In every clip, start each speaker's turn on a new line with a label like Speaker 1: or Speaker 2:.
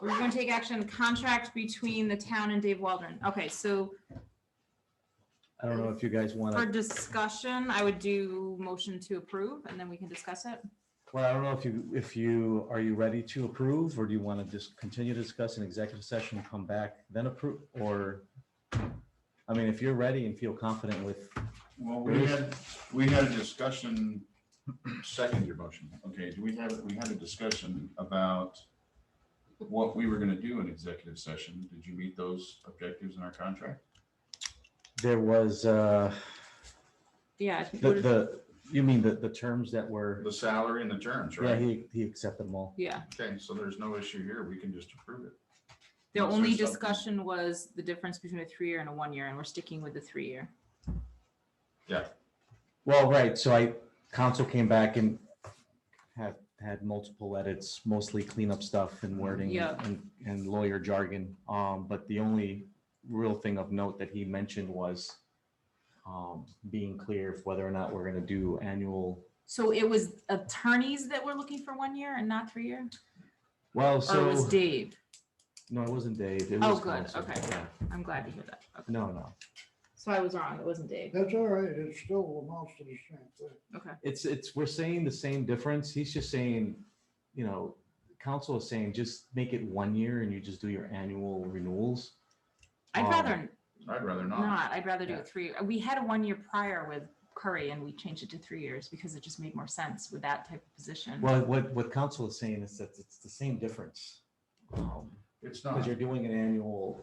Speaker 1: we're going to take action, contract between the town and Dave Waldron. Okay, so
Speaker 2: I don't know if you guys want
Speaker 1: for
Speaker 2: to,
Speaker 1: discussion, I would do motion to approve and then we can discuss it.
Speaker 2: well, I don't know if you, if you, are you ready to approve or do you want to just continue to discuss an executive session, come back, then approve? Or, I mean, if you're ready and feel confident with,
Speaker 3: Well, we had, we had a discussion, second your motion. Okay, do we have, we had a discussion about what we were gonna do in executive session. Did you meet those objectives in our contract?
Speaker 2: there was, uh,
Speaker 1: Yeah. I
Speaker 2: the,
Speaker 1: think-
Speaker 2: the, you mean the, the terms that were,
Speaker 3: The salary and the terms,
Speaker 2: yeah,
Speaker 3: right?
Speaker 2: he, he accepted them all.
Speaker 1: Yeah,
Speaker 3: Okay, so there's no issue here. We can just approve it.
Speaker 1: the
Speaker 3: Unless
Speaker 1: only
Speaker 3: there's something-
Speaker 1: discussion was the difference between a three-year and a one-year and we're sticking with the three-year.
Speaker 2: Well, right, so I, council came back and had, had multiple edits, mostly cleanup stuff and wording
Speaker 1: Yeah.
Speaker 2: and, and lawyer jargon. Um, but the only real thing of note that he mentioned was um, being clear of whether or not we're gonna do annual,
Speaker 1: So it was attorneys that were looking for one year and not three-year?
Speaker 2: well,
Speaker 1: Or Oh, it was
Speaker 2: so,
Speaker 1: Dave?
Speaker 2: no, it wasn't Dave. it
Speaker 1: Oh,
Speaker 2: was
Speaker 1: good,
Speaker 2: council,
Speaker 1: okay.
Speaker 2: yeah.
Speaker 1: I'm glad to hear that. Okay.
Speaker 2: No, no,
Speaker 1: So I was wrong. It wasn't Dave.
Speaker 4: That's all right, it still amounts to the same thing.
Speaker 1: Okay.
Speaker 2: it's, it's, we're saying the same difference, he's just saying, you know, council is saying, just make it one year and you just do your annual renewals.
Speaker 1: I'd
Speaker 2: Um,
Speaker 1: rather
Speaker 3: I'd rather not.
Speaker 1: Not, I'd rather do
Speaker 2: Yeah.
Speaker 1: it three. We had a one year prior with Curry and we changed it to three years because it just made more sense with that type of position.
Speaker 2: Well, what, what council is saying is that it's the same difference. um, Because
Speaker 3: It's not.
Speaker 2: you're doing an annual,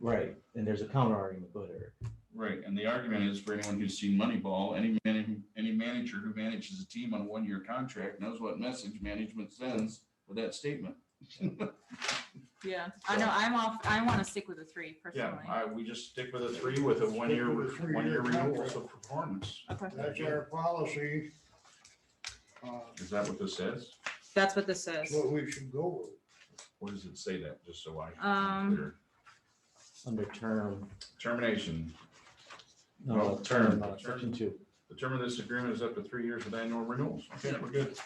Speaker 2: right, and there's a counter argument, but, or,
Speaker 3: Right, and the argument is for anyone who's seen Moneyball, any man, any manager who manages a team on a one-year contract knows what message management sends with that statement.
Speaker 1: Yeah, I know, I'm off, I want to stick with the three
Speaker 3: Yeah,
Speaker 1: personally.
Speaker 3: I, we just stick with a three with a one-year, one-year renewals of performance.
Speaker 1: Okay,
Speaker 4: That's our policy. Uh,
Speaker 3: Is that what this says?
Speaker 1: that's what this
Speaker 4: That's
Speaker 1: says.
Speaker 4: what we should go
Speaker 3: What does it say that, just so I?
Speaker 1: Um,
Speaker 3: can clear?
Speaker 2: under term.
Speaker 3: Termination.
Speaker 2: no,
Speaker 3: Well, term,
Speaker 2: uh, Section
Speaker 3: term.
Speaker 2: two.
Speaker 3: The term of this agreement is up to three years with annual renewals. Okay, we're good.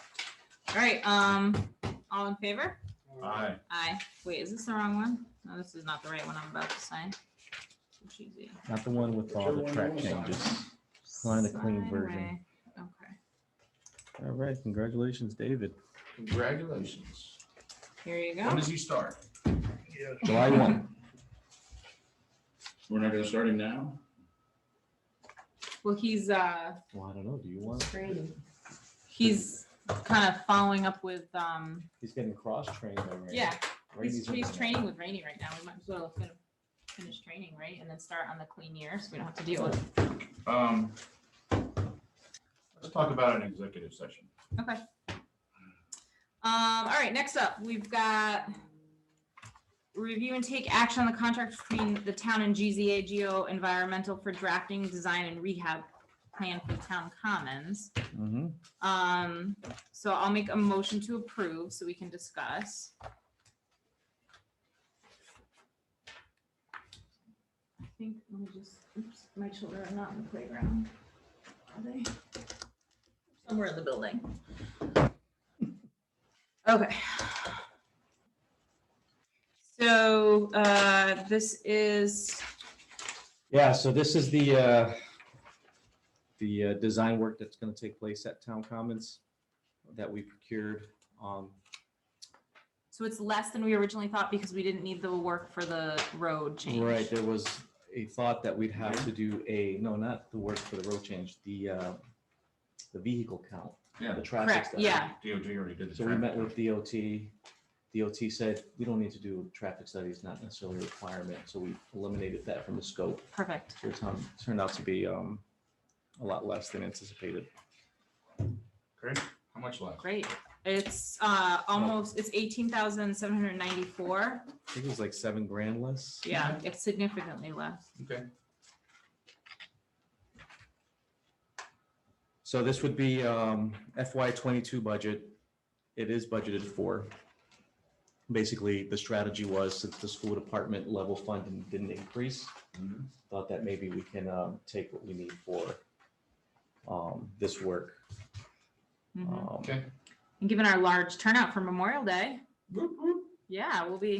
Speaker 1: All right, um, all in favor?
Speaker 4: with. Uh,
Speaker 3: Aye.
Speaker 1: Aye. Wait, is this the wrong one? No, this is not the right one I'm about to sign. Too cheesy.
Speaker 2: Not the one with all the track changes. Sign the clean
Speaker 1: Sign
Speaker 2: version.
Speaker 1: way. Okay,
Speaker 2: All right, congratulations, David.
Speaker 3: Congratulations.
Speaker 1: here you
Speaker 3: When
Speaker 1: go.
Speaker 3: does he start?
Speaker 4: Yes.
Speaker 2: July one.
Speaker 3: We're not gonna start him now?
Speaker 1: Well, he's, uh,
Speaker 2: Well, I don't know, do you want,
Speaker 1: he's kind of following up with, um,
Speaker 2: he's getting cross-trained already.
Speaker 1: yeah,
Speaker 2: Brady's
Speaker 1: He's, he's
Speaker 2: on that.
Speaker 1: training with Rainey right now. We might as well fin- finish training, right? And then start on the clean year so we don't have to deal with.
Speaker 3: Um, let's talk about an executive session.
Speaker 1: Okay. Um, all right, next up, we've got review and take action on the contract between the town and GZA Geo Environmental for drafting, design and rehab plan for the town commons.
Speaker 2: Mhm.
Speaker 1: Um, so I'll make a motion to approve so we can discuss. I think, let me just, oops, my children are not in the playground. Are they? Somewhere in the building. Okay. So, uh, this is,
Speaker 2: Yeah, so this is the, uh, the uh, design work that's going to take place at Town Commons that we procured. um,
Speaker 1: so it's less than we originally thought because we didn't need the work for the road change.
Speaker 2: Right, there was a thought that we'd have to do a, no, not the work for the road change, the, uh, the vehicle count,
Speaker 3: Yeah,
Speaker 2: the
Speaker 3: the
Speaker 2: traffic.
Speaker 1: Correct,
Speaker 2: study.
Speaker 1: yeah.
Speaker 3: DOT already did the.
Speaker 2: So we
Speaker 3: traffic
Speaker 2: met
Speaker 3: count.
Speaker 2: with DOT. DOT said, we don't need to do traffic studies, not necessarily a requirement, so we eliminated that from the scope.
Speaker 1: Perfect.
Speaker 2: So it turned- turned out to be um, a lot less than anticipated.
Speaker 3: How much left?
Speaker 1: Great. It's uh almost, it's eighteen thousand seven hundred ninety-four.
Speaker 2: I think it was like seven grand less.
Speaker 1: Yeah, it's significantly less.
Speaker 3: Okay.
Speaker 2: So this would be um, FY twenty-two budget. It is budgeted for. Basically, the strategy was since the school department level funding didn't increase, Mm-hmm.
Speaker 3: Mhm.
Speaker 2: thought that maybe we can um, take what we need for um, this work.
Speaker 1: Mhm.
Speaker 2: Um,
Speaker 3: Okay.
Speaker 1: Mm-hmm. And given our large turnout for Memorial Day,
Speaker 3: Whoop, whoop.
Speaker 1: Yeah, we'll be